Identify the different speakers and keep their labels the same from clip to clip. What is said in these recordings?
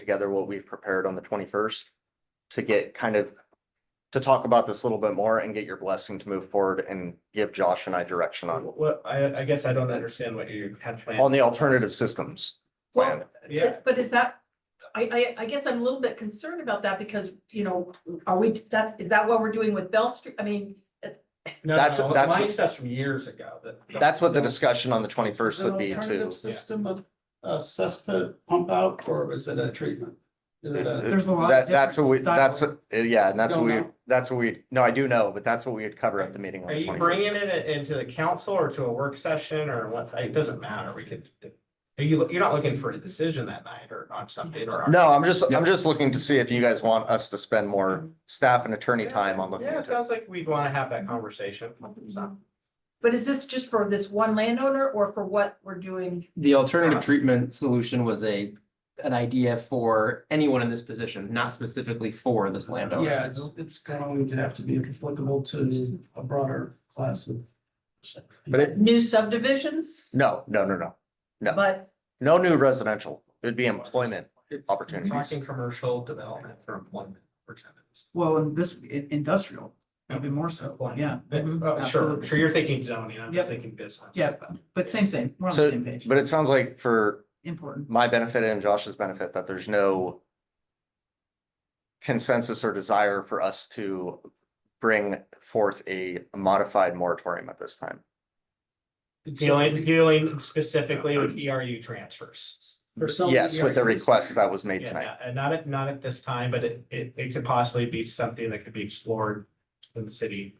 Speaker 1: together what we've prepared on the twenty-first to get kind of, to talk about this a little bit more and get your blessing to move forward and give Josh and I direction on,
Speaker 2: What, I, I guess I don't understand what you had
Speaker 1: on
Speaker 2: planned.
Speaker 1: the alternative systems plan.
Speaker 2: Yeah,
Speaker 3: But is that, I, I, I guess I'm a little bit concerned about that because, you know, are we, that's, is that what we're doing with Bell Street? I mean,
Speaker 2: no,
Speaker 1: That's-
Speaker 2: no,
Speaker 1: that's-
Speaker 2: my stuff's from years ago that.
Speaker 1: That's what the discussion on the twenty-first
Speaker 4: Is it an
Speaker 1: would be too.
Speaker 4: alternative uh, System of a cesspit pump out or was it a treatment? Is it a-
Speaker 3: There's a lot of
Speaker 1: That, that's what we,
Speaker 3: different
Speaker 1: that's,
Speaker 3: styles.
Speaker 1: what- uh, yeah, and that's what
Speaker 4: Don't
Speaker 1: we,
Speaker 4: know.
Speaker 1: that's what we, no, I do know, but that's what we would cover at the meeting on
Speaker 2: Are
Speaker 1: the
Speaker 2: you
Speaker 1: twenty-first.
Speaker 2: bringing it into the council or to a work session or what? It doesn't matter. We could. Are you, you're not looking for a decision that night or on something or?
Speaker 1: No, I'm just, I'm just looking to see if you guys want us to spend more staff and attorney
Speaker 2: Yeah,
Speaker 1: time on looking.
Speaker 2: Yeah,
Speaker 1: at
Speaker 2: it
Speaker 1: it.
Speaker 2: sounds like we'd want to have that conversation. So,
Speaker 3: but is this just for this one landowner or for what we're doing?
Speaker 5: The alternative treatment solution was a, an idea for anyone in this position, not specifically for this landowner.
Speaker 4: Yeah, it's, it's going to have to be applicable to a broader class of.
Speaker 1: But it-
Speaker 3: New subdivisions,
Speaker 1: No, no, no, no. No.
Speaker 3: but
Speaker 1: No new residential. It'd be employment
Speaker 2: we're
Speaker 1: opportunities.
Speaker 2: Talking commercial development for employment. for tenants.
Speaker 6: Well, and this, i- industrial, maybe more so, yeah,
Speaker 2: Oh, Sure,
Speaker 6: Absolutely.
Speaker 2: sure. You're thinking zoning. I'm
Speaker 6: Yep.
Speaker 2: just thinking business.
Speaker 6: yeah, but same, same, we're on the
Speaker 1: So,
Speaker 6: same page,
Speaker 1: but it sounds like for
Speaker 6: important.
Speaker 1: my benefit and Josh's benefit, that there's no consensus or desire for us to bring forth a modified moratorium at this time.
Speaker 2: Dealing, dealing specifically with ERU transfers.
Speaker 4: For some
Speaker 1: Yes, with the
Speaker 4: areas.
Speaker 1: request that was made
Speaker 2: Yeah,
Speaker 1: tonight.
Speaker 2: not- And not at, not at this time, but it, it, it could possibly be something that could be explored in the city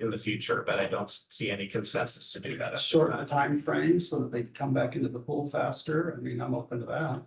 Speaker 2: in the future, but I don't see any consensus to do that. at this
Speaker 4: Shorten the
Speaker 2: time.
Speaker 4: time frame so that they can come back into the pool faster. I mean, I'm open to that.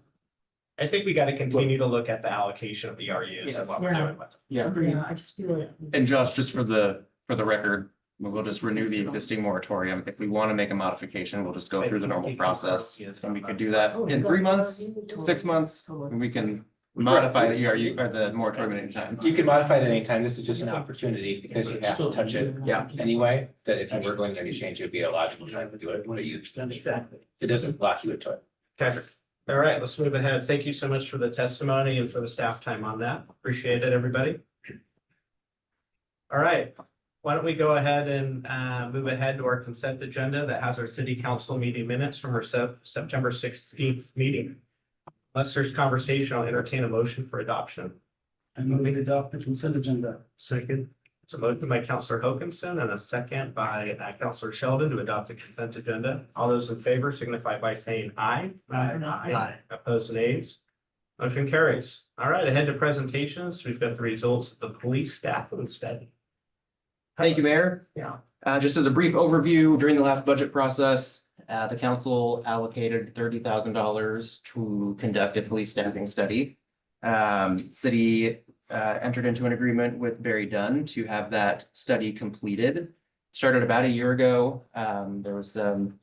Speaker 2: I think we gotta continue to look at the allocation of ERUs and
Speaker 6: Yes,
Speaker 2: what we're
Speaker 6: we're-
Speaker 2: doing with them.
Speaker 5: Yeah.
Speaker 6: I just feel
Speaker 2: it.
Speaker 5: And Josh, just for the, for the record, we'll just renew the existing moratorium. If we want to make a modification, we'll just go through the normal process. And we could do that in three months, six months, and we can modify the ERU or the moratorium at any time.
Speaker 7: You can modify it at any time. This is just an opportunity because you have to touch it
Speaker 5: Yeah.
Speaker 7: anyway, that if you were going to make a change, it would be a logical time to do it. What are you?
Speaker 2: Exactly.
Speaker 7: It doesn't lock you into it.
Speaker 2: Okay, all right, let's move ahead. Thank you so much for the testimony and for the staff time on that. Appreciate it, everybody. All right, why don't we go ahead and uh move ahead to our consent agenda that has our city council meeting minutes from our Sep- September sixteenth meeting. Unless there's conversation, I'll entertain a motion for adoption.
Speaker 4: And move it up the consent agenda.
Speaker 2: Second. It's a motion by Counselor Hokinson and a second by uh, Counselor Sheldon to adopt the consent agenda. All those in favor signify by saying aye. Aye. Opposed, nays. Motion carries. All right, ahead to presentations. We've got the results of the police staffing study.
Speaker 5: Thank you, Mayor.
Speaker 2: Yeah.
Speaker 5: Uh, just as a brief overview, during the last budget process, uh, the council allocated thirty thousand dollars to conduct a police staffing study. Um, city, uh, entered into an agreement with Barry Dunn to have that study completed. Started about a year ago. Um, there was some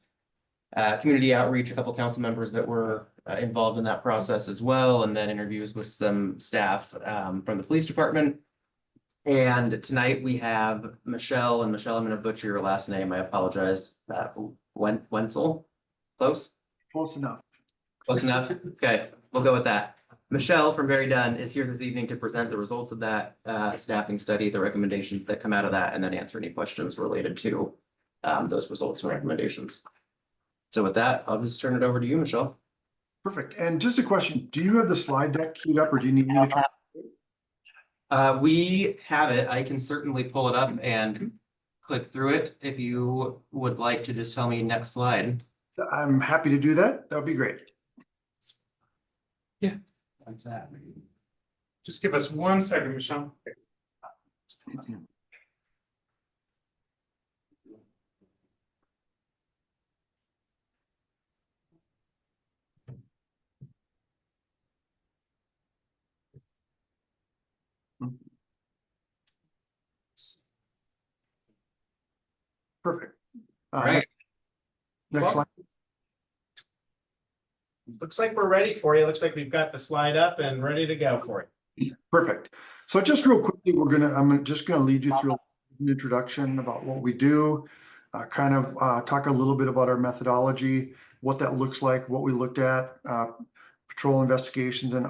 Speaker 5: uh, community outreach, a couple council members that were uh, involved in that process as well, and then interviews with some staff, um, from the police department. And tonight we have Michelle, and Michelle, I'm gonna butcher your last name, I apologize, uh, Wen- Wenzel? Close,
Speaker 6: Close enough.
Speaker 5: close enough, okay, we'll go with that. Michelle from Very Dunn is here this evening to present the results of that, uh, staffing study, the recommendations that come out of that, and then answer any questions related to, um, those results and recommendations. So with that, I'll just turn it over to you, Michelle.
Speaker 8: Perfect. And just a question, do you have the slide deck queued up or do you need me to? try-
Speaker 5: Uh, we have it. I can certainly pull it up and click through it. If you would like to just tell me next slide.
Speaker 8: I'm happy to do that. That would be great.
Speaker 9: Just give us one second, Michelle.
Speaker 8: Perfect. Uh,
Speaker 5: All right.
Speaker 8: Next slide.
Speaker 2: Looks like we're ready for you. Looks like we've got the slide up and ready to go for you.
Speaker 8: Perfect. So just real quickly, we're gonna, I'm gonna- just gonna lead you through an introduction about what we do. Uh, kind of, uh, talk a little bit about our methodology, what that looks like, what we looked at, uh, patrol investigations and